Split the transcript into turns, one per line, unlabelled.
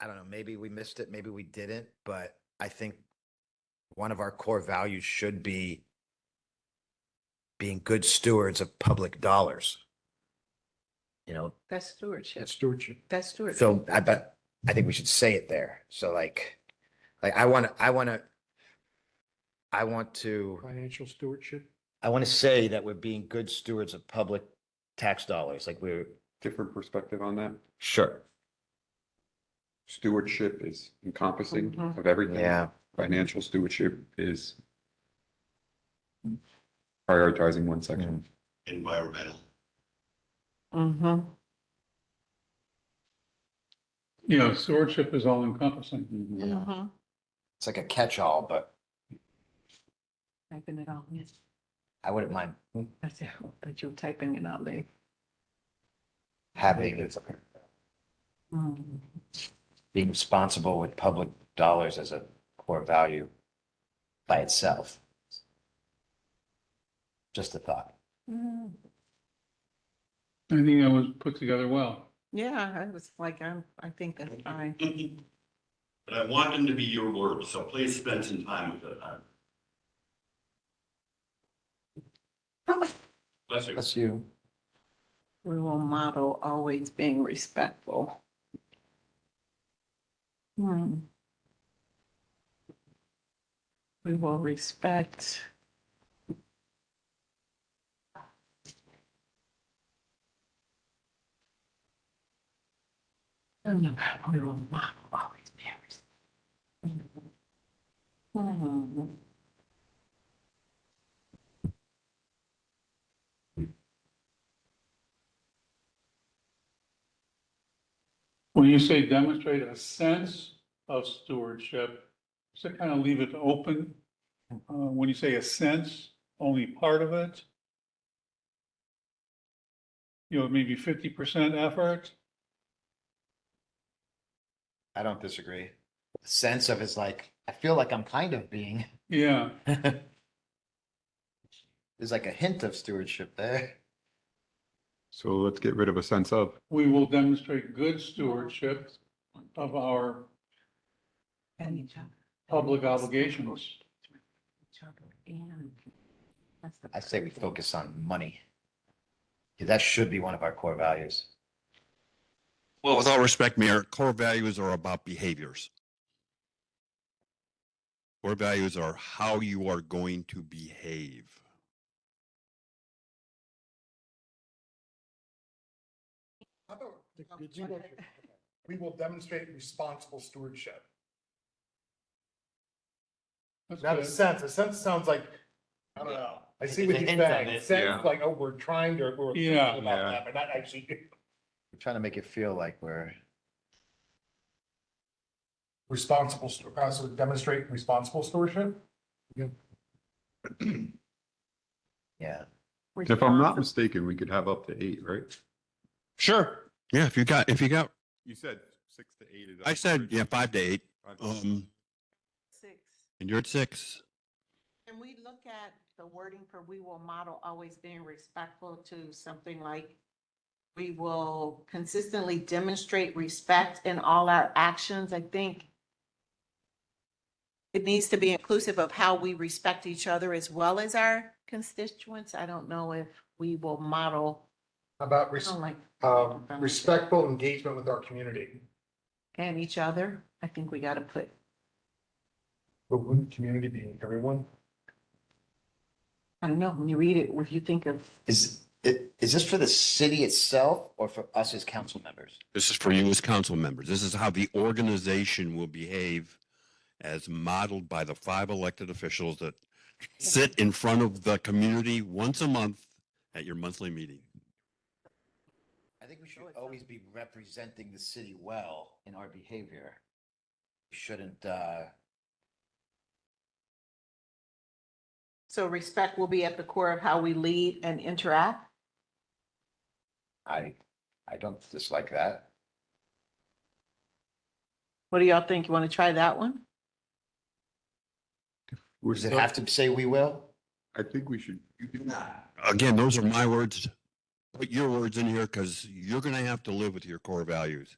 I don't know, maybe we missed it, maybe we didn't, but I think one of our core values should be being good stewards of public dollars. You know,
That's stewardship.
stewardship.
That's stewardship.
so I bet, I think we should say it there. So like, like I want to, I want to, I want to.
Financial stewardship.
I want to say that we're being good stewards of public tax dollars, like we're.
different perspective on that.
Sure.
Stewardship is encompassing
Mhm.
of everything.
Yeah,
Financial stewardship is prioritizing one section.
environmental.
Mm-hmm.
Yeah, stewardship is all encompassing.
Mm-hmm.
yeah. It's like a catch-all, but
Typing it out, yes.
I wouldn't mind
um, That's it, but you're typing it out there.
having,
Mm.
being responsible with public dollars as a core value by itself. Just a thought.
Mm.
I think that was put together well.
Yeah, I was like, I'm, I think that's fine.
But I want them to be your words, so please spend some time with it. Bless you.
That's you.
We will model always being respectful. Hmm. We will respect. And We will model always being respectful. Hmm.
When you say demonstrate a sense of stewardship, so kind of leave it open. Uh, when you say a sense, only part of it. You know, maybe fifty percent effort.
I don't disagree. The Sense of is like, I feel like I'm kind of being,
Yeah,
there's like a hint of stewardship there.
So let's get rid of a sense of.
we will demonstrate good stewardship of our
And each other.
public obligations.
Each other and. that's the-
I say we focus on money. 'Cause That should be one of our core values.
Well, with all respect, Mayor, core values are about behaviors. Core values are how you are going to behave.
How about the good stewardship? We will demonstrate responsible stewardship.
That's
Not a
good.
sense, a sense sounds like, I don't know, I see what
It's a hint
you're
of
saying,
it.
Yeah.
sense like, oh, we're trying to, we're thinking
Yeah.
about
Yeah.
that, but not actually,
We're trying to make it feel like we're,
responsible, stu- uh, so demonstrate responsible stewardship?
yeah.
If I'm not mistaken, we could have up to eight, right?
Sure. Yeah, if you got, if you got,
You said six to eight. is-
I said, yeah, five to eight,
Five to eight.
um,
Six.
and you're at six.
Can we look at the wording for we will model always being respectful to something like we will consistently demonstrate respect in all our actions? I think it needs to be inclusive of how we respect each other as well as our constituents. I don't know if we will model,
How About
I
res-
don't like.
um, respectful engagement with our community,
And each other, I think we gotta put
but wouldn't community being everyone?
I don't know, when you read it, if you think of,
Is, i- is this for the city itself or for us as council members?
This is for you as council members. This is how the organization will behave as modeled by the five elected officials that sit in front of the community once a month at your monthly meeting.
I think we should always be representing the city well in our behavior. We Shouldn't, uh,
so respect will be at the core of how we lead and interact.
I, I don't dislike that.
What do y'all think? You wanna try that one?
We're
Does it
still-
have to say we will?
I think we should.
Again, those are my words. Put your words in here because you're going to have to live with your core values.